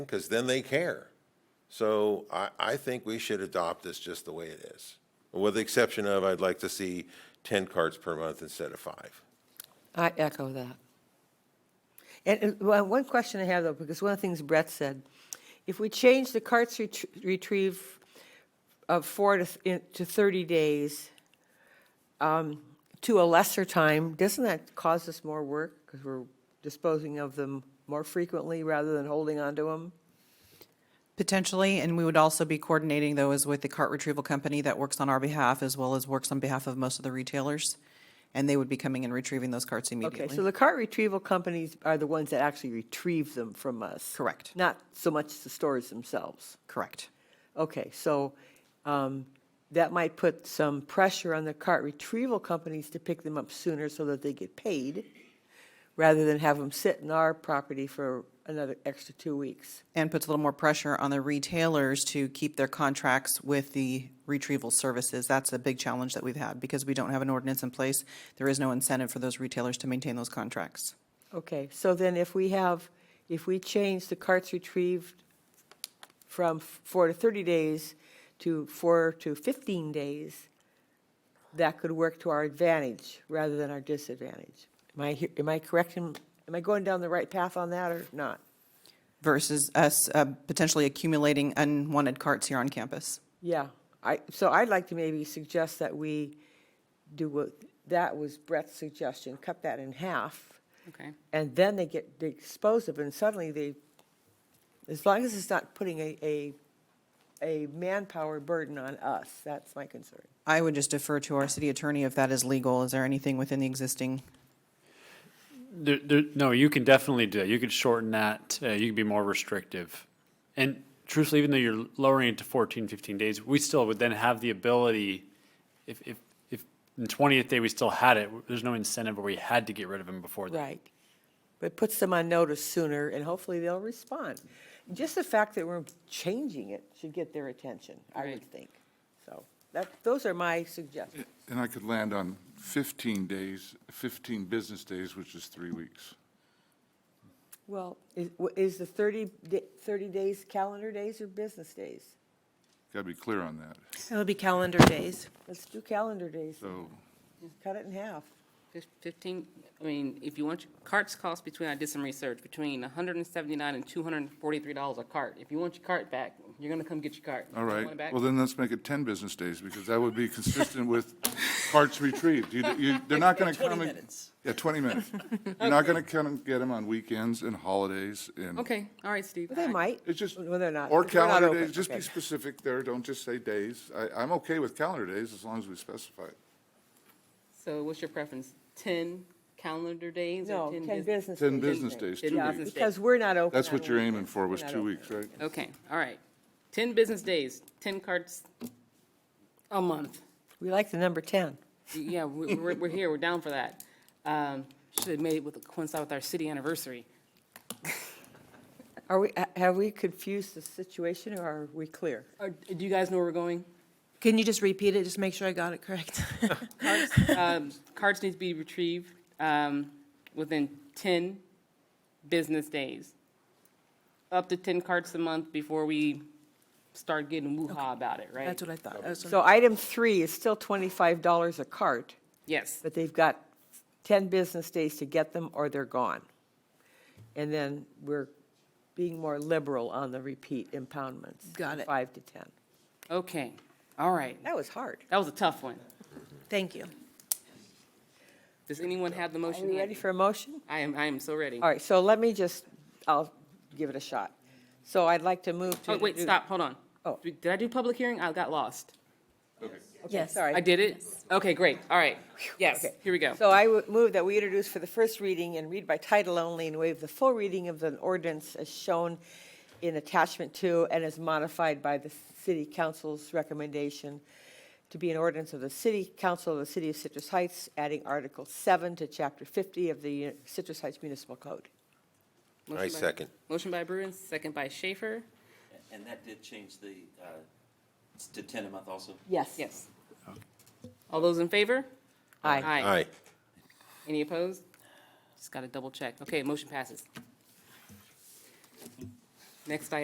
because then they care. So I, I think we should adopt this just the way it is. With the exception of, I'd like to see 10 carts per month instead of five. I echo that. And, and, well, one question I have though, because one of the things Brett said, if we change the carts ret- retrieve of four to, th- in- to 30 days um, to a lesser time, doesn't that cause us more work? Because we're disposing of them more frequently rather than holding onto them? Potentially, and we would also be coordinating though is with the cart retrieval company that works on our behalf as well as works on behalf of most of the retailers. And they would be coming and retrieving those carts Okay, so immediately. the cart retrieval companies are the ones that actually retrieve them from us? Correct. Not so much the stores themselves? Correct. Okay, so um, that might put some pressure on the cart retrieval companies to pick them up sooner so that they get paid, rather than have them sit in our property for another extra two weeks. And puts a little more pressure on the retailers to keep their contracts with the retrieval services. That's a big challenge that we've had because we don't have an ordinance in place. There is no incentive for those retailers to maintain those contracts. Okay, so then if we have, if we change the carts retrieved from f- four to 30 days to four to 15 days, that could work to our advantage rather than our disadvantage. Am I, he- am I correct? in- Am I going down the right path on that or not? Versus us uh, potentially accumulating unwanted carts here on campus. Yeah, I, so I'd like to maybe suggest that we do what, that was Brett's suggestion, cut that in half. Okay. And then they get, they dispose of it, and suddenly they, as long as it's not putting a, a, a manpower burden on us, that's my concern. I would just defer to our city attorney if that is legal. Is there anything within the existing There, there, no, you can definitely do that. You could shorten that. Uh, you could be more restrictive. And truthfully, even though you're lowering it to 14, 15 days, we still would then have the ability, if, if, if in 20th day we still had it, there's no incentive where we had to get rid of him before that. Right. But it puts them on notice sooner, and hopefully they'll respond. Just the fact that we're changing it should get their attention, I would Right. think. So, that, those are my suggestions. And I could land on 15 days, 15 business days, which is three weeks. Well, is, w- is the 30, da- 30 days calendar days or business days? Got to be clear on that. It would be calendar days. Let's do calendar days, So cut it in half. Fif- Fifteen, I mean, if you want, your- carts cost between, I did some research, between hundred and seventy-nine and two hundred and forty-three dollars a cart. If you want your cart back, you're gonna come get your cart. All You right, want it back? well, then let's make it 10 business days, because that would be consistent with parts retrieved. You, you, they're not going to come. 20 minutes. Yeah, 20 minutes. You're not going to come and get them on weekends and holidays and. Okay, all right, Steve. But They I- might. It's just. Well, they're not. Or because we're not calendar open. days, just be Okay. specific there, don't just say days. I, I'm okay with calendar days as long as we specify it. So what's your preference? Ten calendar days No, or 10 ten business? business days. 10 business days, Ten two Yeah, weeks. business because we're not open. That's on what you're aiming weekends. for, was We're not two open. weeks, right? Okay, all right. Ten business days, ten carts a month. We like the number 10. Yeah, we- we're, we're here, we're down for that. Um, should have made it with, coincide with our city anniversary. Are we, ha- have we confused the situation, or are we clear? Or, do you guys know where we're going? Can you just repeat it, just make sure I got it correct? Um, Cards need to be retrieved um, within 10 business days. Up to 10 carts a month before we start getting woo-ha about it, right? That's what I thought. That's what- So item three is still $25 a cart, Yes, but they've got 10 business days to get them, or they're gone. And then we're being more liberal on the repeat impoundments. Got it. Five to 10. okay, all right. That was hard. That was a tough one. Thank you. Does anyone have the Are motion you ready handy? for a motion? I am, I am so ready. All right, so let me just, I'll give it a shot. So I'd like to move to. Oh, wait, stop, hold on. Oh. Did I do public hearing? I got lost. Yes. Sorry. I did it? Okay, great, all right. Yes, Okay. here we go. So I would move that we introduce for the first reading and read by title only and waive the full reading of the ordinance as shown in attachment two and as modified by the city council's recommendation to be an ordinance of the city council of the city of Citrus Heights, adding Article seven to Chapter fifty of the Citrus Heights Municipal Code. Motion by- second. Motion by Bruin, second by Schaefer. And that did change the, uh, s- to ten a month also? Yes. Yes. All those in favor? Aye. Aye. Any opposed? Just got to double check. Okay, motion passes. Next item.